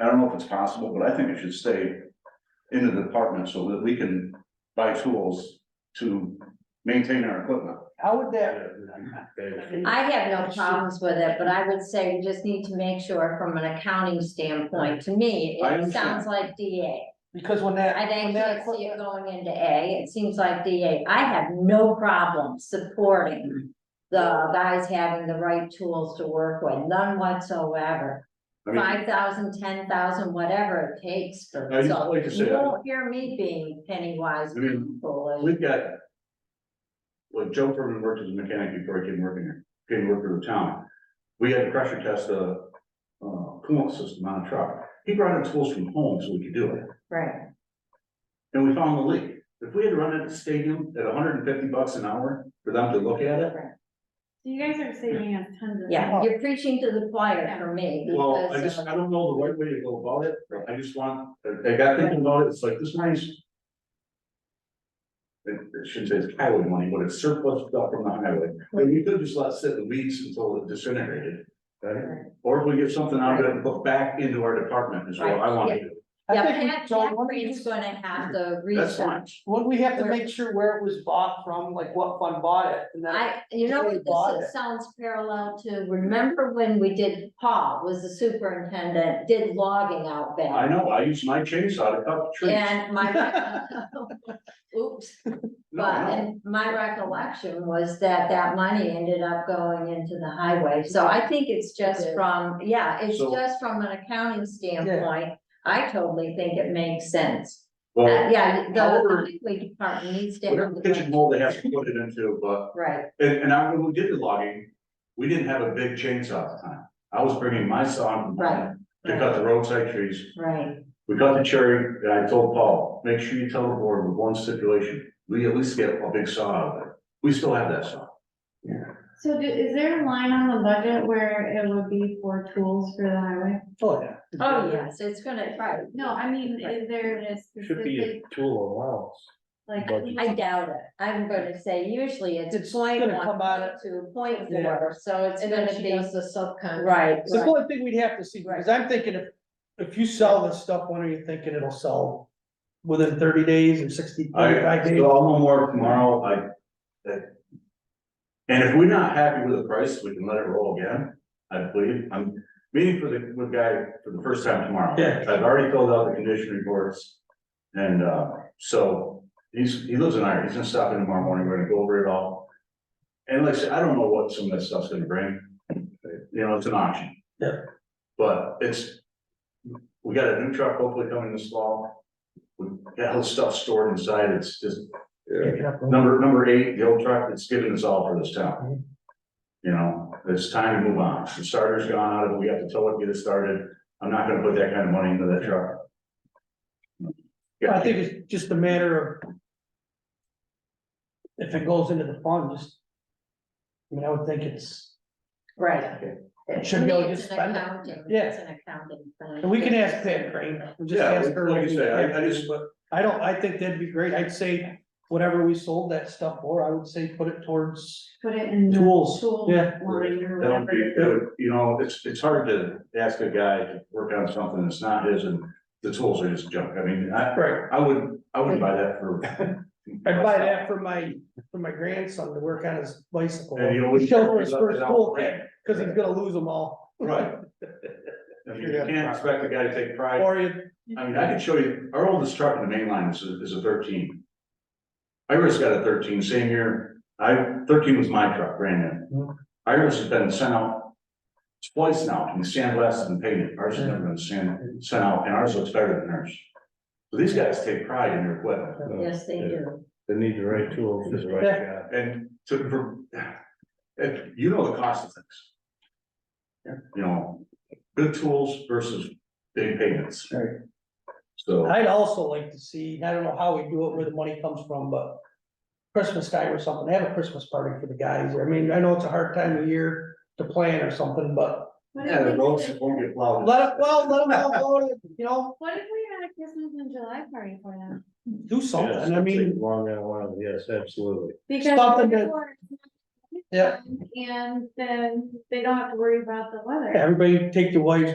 I don't know if it's possible, but I think it should stay in the department so that we can buy tools to maintain our equipment. How would that, I have no problems with it, but I would say we just need to make sure from an accounting standpoint, to me, I it understand. sounds like DA. because when that, I when think that not see equipment, it going into A, it seems like DA, I have no problem supporting the guys having the right tools to work with, none whatsoever. I mean, Five thousand, ten thousand, whatever it takes for, I just so like to you say- won't hear me being penny wise. I mean, foolish. We've got. Well, Joe Furman worked as a mechanic before he came working here, came work for the town. We had to pressure test the uh coolant system on a truck. He brought in tools from home so we could do it. Right, And we found the leak. If we had run it at the stadium at hundred and fifty bucks an hour for them to look at it. right. You guys are saving us tons of. Yeah, you're preaching to the choir for me Well, I because just, of- I don't know the right way to go about it. I just want, I got thinking about it. It's like this nice. It it shouldn't say it's highway money, but it's surplus stuff from the highway. I mean, you could just let it sit in the weeds until it disintegrated. right? Or if we get something out of it, and put back into our department is what I want to do. I Yeah, think, Pat, we- so Pat wouldn't we Green's just- gonna have to That's fine. research. wouldn't we have to Where- make sure where it was bought from, like what fund bought it, and then, I, you know, They what bought this it. is- sounds parallel to, remember when we did, Paul was the superintendent, did logging out I back? know, I use my chainsaw to cut trees. And my, oops, No, but, no. and my recollection was that that money ended up going into the highway, so I think it's just did. from, yeah, it's So- just from an accounting standpoint. I totally think it makes sense, Uh, Well, yeah, the- however- the highway department needs to. have whatever the kitchen mold they have to put it into, but Right, And, and I, when we did the logging, we didn't have a big chainsaw at the time. I was bringing my saw from Right, home to cut the roadside trees. right. We cut the cherry, and I told Paul, make sure you tell the board with one stipulation, we at least get a big saw out of it. We still have that saw. So do, is there a line on the budget where it would be for tools for the highway? oh, yeah. Oh, yes, it's gonna, right, No, I mean, is there a Should be a specific, tool allowance. like? budget. I doubt it, I'm gonna say usually it's It's point gonna one come out to point Yeah. four, so it's And then gonna she be. does the subcontract. Right, It's the right, only thing we'd have to see, because I'm thinking if, if you sell this stuff, when are you thinking it'll sell? Within thirty days or sixty, I, thirty-five days? so I'll know more tomorrow, I, that- And if we're not happy with the price, we can let it roll again, I believe. I'm meeting for the, with guy for the first time tomorrow. Yeah. I've already filled out the condition reports. And, uh, so he's, he lives in Ireland. He's gonna stop in tomorrow morning. We're gonna go over it all. And like I said, I don't know what some of that stuff's gonna bring. You know, it's an auction. Yeah. But it's, we got a new truck hopefully coming this fall. We got all the stuff stored inside. It's just Number, number eight, the old truck that's given us all for this Mm-hmm. town. You know, it's time to move on. The starter's gone out of it. We have to tell it, get it started. I'm not gonna put that kind of money into that truck. I think it's just a matter of. If it goes into the fund, just. I mean, I would think it's, right. It should be able to just It's an spend it. accounting- Yeah. It's an accounting. thing. and we can ask Pat Crane, we'll just Yeah, ask her. like you say, I, I just, I don't, I think that'd be great, I'd say whatever we sold that stuff for, I would say put it towards Put it in. the tools, Tool yeah. line or That would whatever. be, it that is. would- you know, it's, it's hard to ask a guy to work on something that's not his and the tools are just junk. I mean, I, Right. I would, I wouldn't buy that for. I'd buy that for my, for my grandson to work on his bicycle. And you know, we- Show for his first school thing, cause he's gonna lose them all, Right. I mean, you can't expect a guy to take pride. or you I mean, I could show you, our oldest truck in the main line is, a- is a thirteen. Iris got a thirteen, same year, I, thirteen was my truck, brand Mm-hmm. new. Iris has been sent out twice now, and sandblasted and painted, ours has never been sand, sent out, and ours looks better than hers. So these guys take pride in their equipment, Yes, they do, Uh, They need the right tool for the right Yeah. job. and to, for, and you know the cost of things. You know, good tools versus big payments. Right. So. I'd also like to see, and I don't know how we do it, where the money comes from, but Christmas time or something, have a Christmas party for the guys, I mean, I know it's a hard time of year to plan or something, but What Yeah, the if roads we- won't get plowed. let it, well, let them all go, you know, What if we had a Christmas in July party for them? do something, I mean, Long and wild, yes, absolutely. Because. Something that- before- Yeah. And then they don't have to worry about the weather. everybody take your wives,